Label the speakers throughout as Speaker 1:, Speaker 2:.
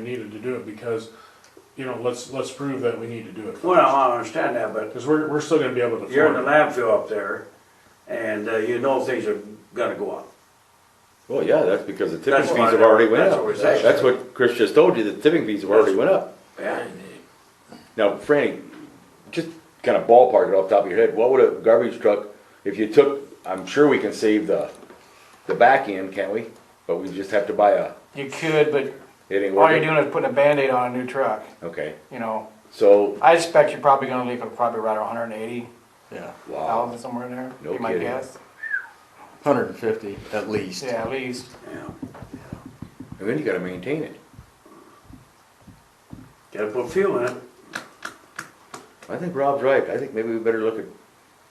Speaker 1: needed to do it because, you know, let's, let's prove that we need to do it.
Speaker 2: Well, I understand that, but
Speaker 1: Because we're, we're still gonna be able to
Speaker 2: you're in the
Speaker 1: afford it.
Speaker 2: landfill up there, and uh, you know things are gonna go up.
Speaker 3: Well, yeah, that's because the tipping
Speaker 2: That's
Speaker 3: fees
Speaker 2: why
Speaker 3: have already went
Speaker 2: that's
Speaker 3: up.
Speaker 2: what we're saying.
Speaker 3: That's what Chris just told you, the tipping fees have already went up.
Speaker 2: Yeah,
Speaker 3: Now, Franny, just kind of ballpark it off the top of your head, what would a garbage truck, if you took, I'm sure we can save the, the back end, can't we? But we just have to buy a,
Speaker 4: You could, but
Speaker 3: it ain't
Speaker 4: all you're
Speaker 3: working.
Speaker 4: doing is putting a Band-Aid on a new truck,
Speaker 3: Okay,
Speaker 4: you know.
Speaker 3: so,
Speaker 4: I expect you're probably gonna leak it probably right around hundred and eighty
Speaker 5: Yeah,
Speaker 3: wow,
Speaker 2: Um,
Speaker 4: thousand, somewhere in there.
Speaker 3: No
Speaker 4: be my
Speaker 3: kidding.
Speaker 4: guess.
Speaker 5: hundred and fifty at least.
Speaker 4: Yeah, at least.
Speaker 2: yeah.
Speaker 3: and then you gotta maintain it.
Speaker 2: Gotta put fuel in it.
Speaker 3: I think Rob's right, I think maybe we better look at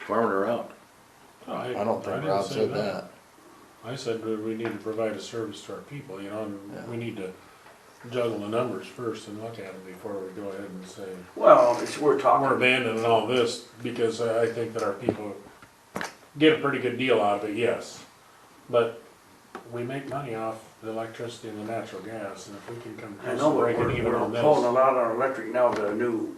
Speaker 3: farming around.
Speaker 5: Oh, I don't think
Speaker 1: didn't
Speaker 5: Rob
Speaker 1: say
Speaker 5: said that.
Speaker 1: I said that we need to provide a service to our people, you know,
Speaker 5: Yeah.
Speaker 1: and we need to juggle the numbers first and look at them before we go ahead and say,
Speaker 2: Well, it's, we're
Speaker 1: we're
Speaker 2: talking,
Speaker 1: abandoning all this, because I I think that our people get a pretty good deal out of it, yes. But we make money off the electricity and the natural gas, and if we can come
Speaker 2: I
Speaker 1: close
Speaker 2: know,
Speaker 1: to
Speaker 2: but
Speaker 1: breaking
Speaker 2: we're,
Speaker 1: even on
Speaker 2: we're pulling a
Speaker 1: this.
Speaker 2: lot on electric now with a new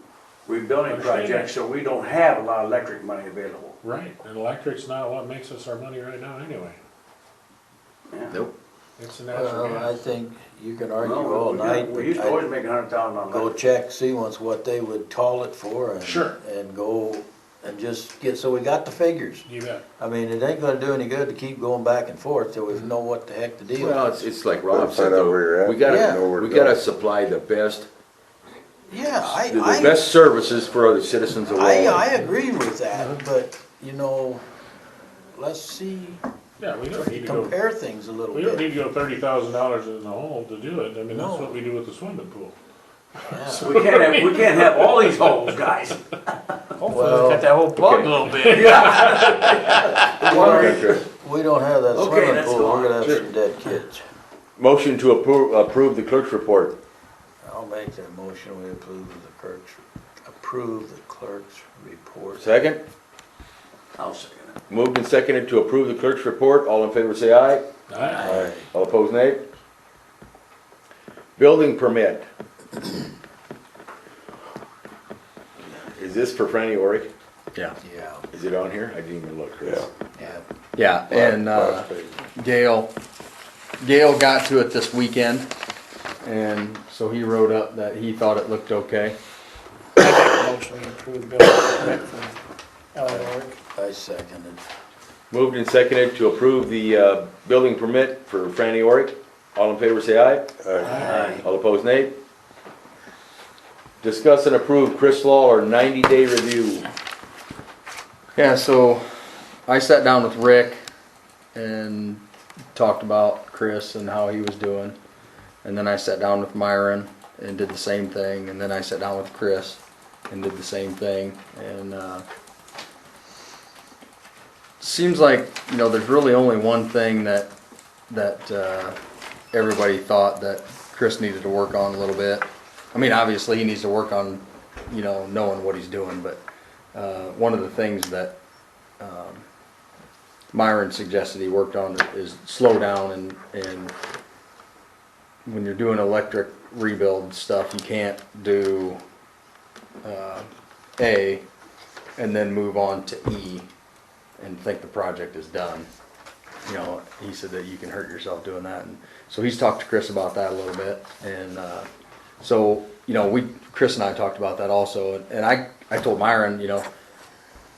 Speaker 2: rebuilding
Speaker 1: Understand
Speaker 2: project,
Speaker 1: that.
Speaker 2: so we don't have a lot of electric money available.
Speaker 1: Right, and electric's not what makes us our money right now anyway,
Speaker 2: Yeah.
Speaker 3: Nope.
Speaker 1: it's the natural
Speaker 5: Well, I
Speaker 1: gas.
Speaker 5: think you could
Speaker 2: Well,
Speaker 5: argue all
Speaker 2: we-
Speaker 5: night.
Speaker 2: We used to
Speaker 5: I'd
Speaker 2: always make a hundred thousand on
Speaker 5: Go
Speaker 2: electric.
Speaker 5: check, see once what they would call it for and.
Speaker 1: Sure.
Speaker 5: And go and just get, so we got the figures.
Speaker 1: You bet.
Speaker 5: I mean, it ain't gonna do any good to keep going back and forth till we know what the heck the deal
Speaker 3: Well,
Speaker 5: is.
Speaker 3: it's, it's like
Speaker 6: Gotta
Speaker 3: Rob said,
Speaker 6: find out
Speaker 3: though,
Speaker 6: where you're at,
Speaker 3: we gotta,
Speaker 5: Yeah.
Speaker 6: know where
Speaker 3: we
Speaker 6: to
Speaker 3: gotta
Speaker 6: go.
Speaker 3: supply the best,
Speaker 5: Yeah, I,
Speaker 3: the the
Speaker 5: I,
Speaker 3: best services for other citizens of
Speaker 5: I,
Speaker 3: Wallen.
Speaker 5: I agree with
Speaker 1: Mm-hmm.
Speaker 5: that, but, you know, let's see,
Speaker 1: Yeah, we don't need to go,
Speaker 5: compare things a little
Speaker 1: we don't need
Speaker 5: bit.
Speaker 1: to go thirty thousand dollars in the hole to do it, I mean, that's
Speaker 5: No.
Speaker 1: what we do with the swimming pool.
Speaker 5: Yeah.
Speaker 2: We can't have, we can't have all these holes, guys.
Speaker 5: Well,
Speaker 4: Hopefully, cut that whole plug a little bit.
Speaker 5: Well, We don't have that
Speaker 2: Okay,
Speaker 5: swimming
Speaker 2: let's
Speaker 5: pool,
Speaker 2: go
Speaker 5: we're
Speaker 2: on.
Speaker 5: gonna have
Speaker 3: Sure.
Speaker 5: some dead kids.
Speaker 3: Motion to approve, approve the clerk's report.
Speaker 5: I'll make that motion, we approve the clerk's, approve the clerk's report.
Speaker 3: Second,
Speaker 2: I'll second it.
Speaker 3: moved and seconded to approve the clerk's report. All in favor, say aye.
Speaker 1: Alright,
Speaker 3: Aye. All opposed, nay. Building permit. Is this for Franny Oric?
Speaker 7: Yeah,
Speaker 5: Yeah,
Speaker 3: Is it on here? I didn't even look, Chris.
Speaker 5: yeah.
Speaker 7: yeah, and uh, Gail, Gail got to it this weekend, and so he wrote up that he thought it looked okay.
Speaker 4: Motion to approve the bill for Eleanor.
Speaker 5: I second it.
Speaker 3: Moved and seconded to approve the, uh, building permit for Franny Oric. All in favor, say aye.
Speaker 5: Aye.
Speaker 3: All opposed, nay. Discuss and approve Chris Lawler ninety-day review.
Speaker 7: Yeah, so I sat down with Rick and talked about Chris and how he was doing. And then I sat down with Myron and did the same thing. And then I sat down with Chris and did the same thing. And uh, seems like you know there's really only one thing that that uh, everybody thought that Chris needed to work on a little bit. I mean, obviously he needs to work on you know knowing what he's doing, but uh, one of the things that um, Myron suggested he worked on is slow down and, and when you're doing electric rebuild stuff, you can't do uh, A and then move on to E and think the project is done. You know, he said that you can hurt yourself doing that. And so he's talked to Chris about that a little bit. And uh, so, you know, we, Chris and I talked about that also. And I, I told Myron, you know,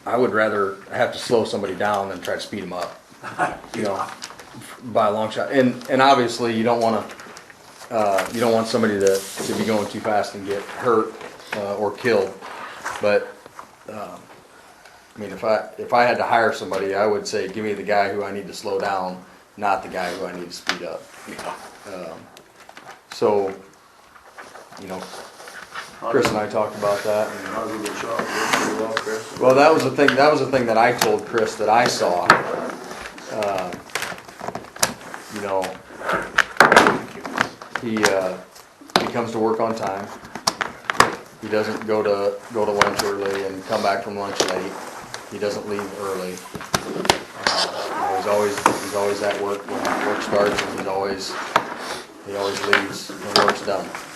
Speaker 7: I would rather have to slow somebody down than try to speed them up, you know, by a long shot. And, and obviously you don't want to, uh, you don't want somebody to, to be going too fast and get hurt, uh, or killed. But, um, I mean, if I, if I had to hire somebody, I would say, give me the guy who I need to slow down, not the guy who I need to speed up. Um, So, you know, Chris and I talked about that and
Speaker 2: How's it been shot? Pretty well, Chris.
Speaker 7: well, that was the thing, that was the thing that I told Chris that I saw. Uh, You know, he, uh, he comes to work on time. He doesn't go to, go to lunch early and come back from lunch late. He doesn't leave early. Uh, you know, He's always, he's always at work when work starts and he's always, he always leaves when work's done.